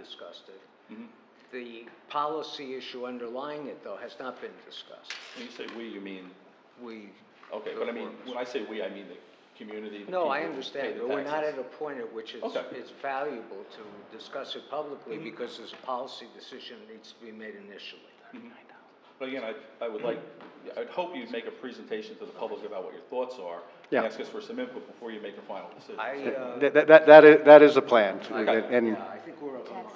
discussed it. Mm-hmm. The policy issue underlying it, though, has not been discussed. When you say we, you mean, We. okay, the but I mean, four of us. when I say we, I mean the community, the No, I people who pay understand, the but we're not at taxes. a point at which it's, Okay. Mm-hmm. it's valuable to discuss it publicly because there's a policy decision that needs to be made initially. Mm-hmm. But again, I, I would like, I'd hope you'd make a presentation to the public about what your thoughts are. Yeah. And ask us for some input before you make a final decision. I, uh, That, that- that, that is, that is a plan, and, yeah, I think we're of a mind.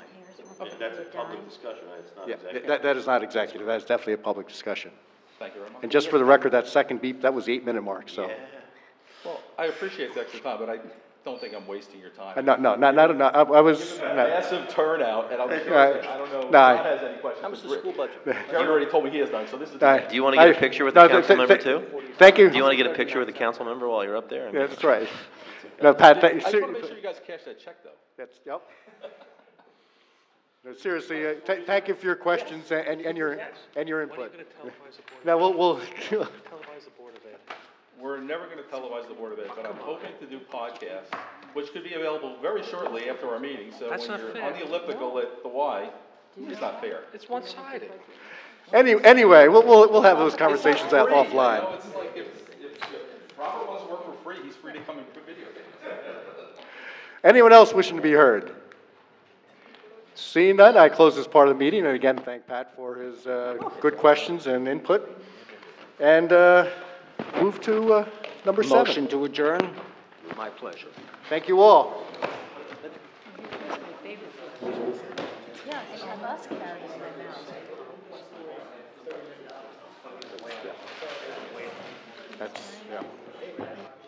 Taxpayers Okay. won't That's a be public done. discussion, right? It's not yeah, executive. that, that is not executive, that is definitely a public discussion. Thank you very much. And just for the record, that second beep, that was the eight-minute mark, so. Well, I appreciate the extra time, but I don't think I'm wasting your time. Uh, No, no, not, not, not- I I was, A no, Massive turnout, and I'm sure, Right. I don't know, if No, I- Rod has any questions. How but much is the Rick- school budget? Jerry already told me he has none, so this is. the I- end. Do you wanna get a I- picture with the no, th- council th- member th- too? Thank you. Do you want to get a picture with the council member while you're up there? I mean, Yeah, that's right. No, Pat, I thank, just wanna make sure ser- you guys cash that check, though. that's, yep. No, seriously, uh, th- thank you for your questions and, and- and your, and your input. Now, we'll, we'll, We're never gonna televise the Board of Ed, but I'm hoping to do podcasts, which could be available very shortly after our meeting, so when That's not you're fair. on the elliptical at the Y, it's not fair. It's one-sided. any, anyway, we'll, we'll, we'll have those conversations out Free, you offline. know, it's like if, if Robert wants to work for free, he's free to come and put video games. Anyone else wishing to be heard? Seeing none, I close this part of the meeting, and again, thank Pat for his uh, good questions and input. And uh, move to uh, number seven. Motion to adjourn? My pleasure. Thank you all. Yeah, and have us carry it in my mouth. That's, yeah.